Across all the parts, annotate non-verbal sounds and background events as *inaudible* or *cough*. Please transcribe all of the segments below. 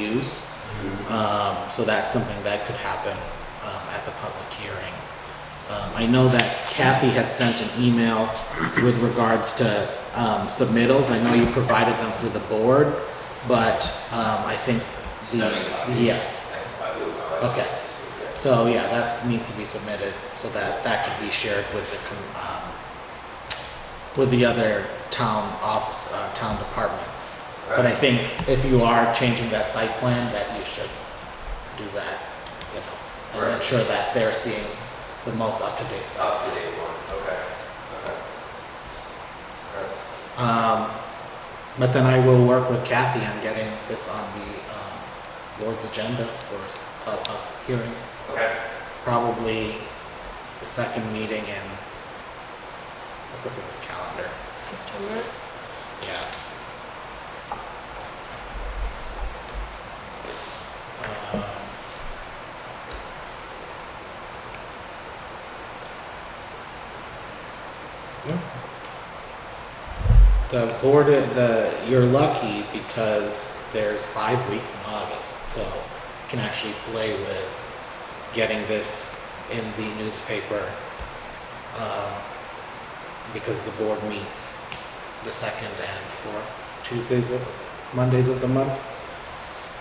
use. Um, so that's something that could happen, um, at the public hearing. Um, I know that Kathy had sent an email with regards to, um, submittals. I know you provided them for the board, but, um, I think. the- Seven copies. Yes. I can probably move on. Okay. So, yeah, that needs to be submitted so that that can be shared with the, com- um, with the other town office, uh, town departments. But I Right. think if you are changing that site plan, that you should do that, you know, and Right. ensure that they're seeing the most up-to-date It's stuff. up to date one, okay, okay. Alright. Um, but then I will work with Kathy on getting this on the, um, board's agenda for s- a, a hearing. Okay, probably the second meeting in, let's look at this calendar, September? yeah. Um, yeah. The board, the, you're lucky because there's five weeks in August, so you can actually play with getting this in the newspaper, um, because the board meets the second and fourth Tuesdays of, Mondays of the month.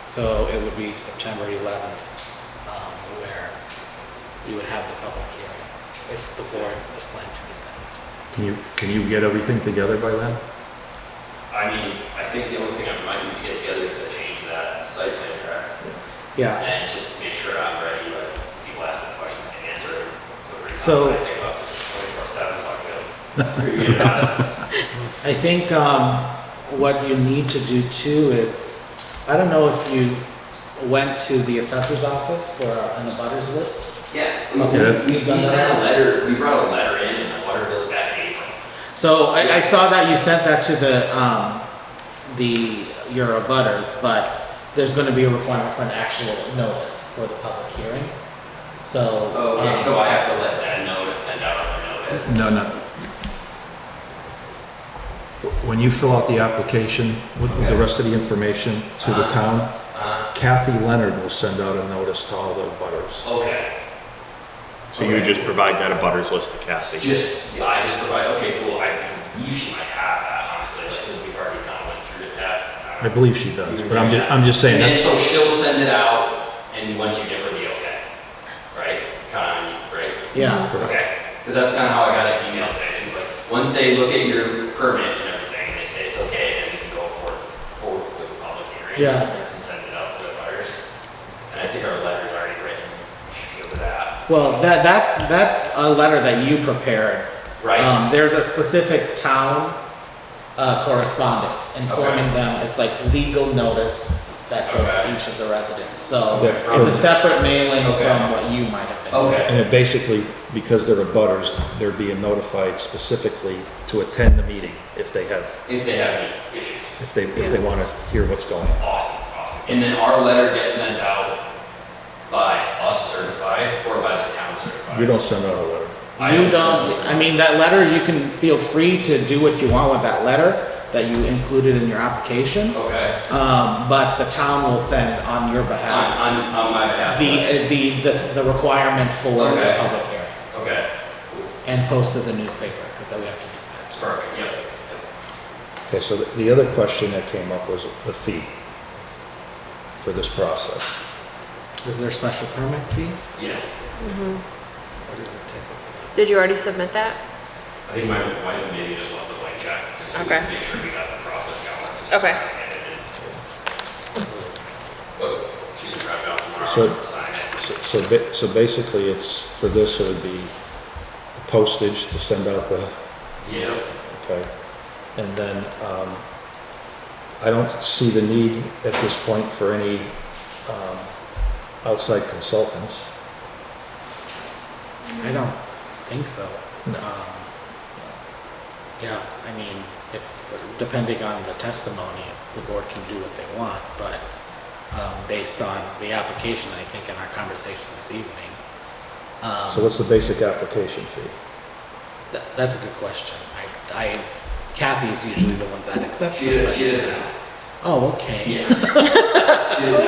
So it would be September eleventh, um, where you would have the public hearing, if the board was planning to do that. Can you, can you get everything together by then? I mean, I think the only thing I might need to get together is to change that site plan, correct? Yeah, And just make sure I'm ready, like, people ask me questions to answer. Feel free to So- talk. I think about this twenty-four seven, so I feel. pretty good about it. I think, um, what you need to do too is, I don't know if you went to the assessor's office for an abutters list? *laughs* Yeah, Okay. we, we, we sent a letter, we brought a letter in and the water goes back in April. So I, I saw that you sent that to the, um, the, your abutters, but there's gonna be a requirement for an actual notice for the public hearing, so. Oh, okay, um, so I have to let that know to send out a notice. No, no. When you fill out the application with with the Okay. rest of the information to the Uh-huh. town, Uh, Kathy Leonard will send out a notice to all the butters. okay, So you would just provide that a butters list to Kathy? just, I just provide, okay, cool, I believe she might have that, honestly, like, because we've already kind of went through the path. I believe she does, but I'm just, I'm just saying And then that's, so she'll send it out and once you give her the okay, right? Kind of, right? Yeah, Okay, because that's kind of how I got an email today. She was like, once they look at your permit and everything, and they say it's okay, then we can go forth, forward with the public hearing. Yeah. And send it out to the butters. And I think our letter's already written, we should go to that, well, that, that's, that's a letter that you prepared. right? Um, there's a specific town, uh, correspondence informing them, it's like legal notice that goes Okay. to each of the residents, so. Yeah. It's a separate mailing Okay. from what you might have been. Okay, and it basically, because they're a butters, they're being notified specifically to attend the meeting if they have, if they have any issues, if they, if they want to hear what's going on. awesome, awesome. And then our letter gets sent out by us certified or by the town certified? You don't send out a letter. I You don't- don't, I mean, that letter, you can feel free to do what you want with that letter that you included in your application. Okay, Um, but the town will send on your on, behalf on, on my behalf. the, uh, the, the, the requirement for the Okay. public hearing Okay, and post to the newspaper, because we have to do it's perfect, yep, yep. Okay, so the- the other question that came up was the fee for this process. that. Is there a special permit fee? Yes, What is it typically? Did you already submit that? I think my wife maybe just left the blank check, just to Okay. make sure we got the process going. just Okay. to try and get it in. Was- She can drive out tomorrow So- and sign it. So, so ba- so basically, it's, for this, it would be postage to send out the, Yep, okay? And then, um, I don't see the need at this point for any, um, outside consultants. I don't think so. No. Um, Yeah, I mean, if, depending on the testimony, the board can do what they want, but, um, based on the application, I think in our conversation this evening. um, So what's the basic application fee? Th- That's a good question. I, I, Kathy is usually the one that accepts she doesn't, this. she doesn't, Oh, okay. yeah. *laughs* She doesn't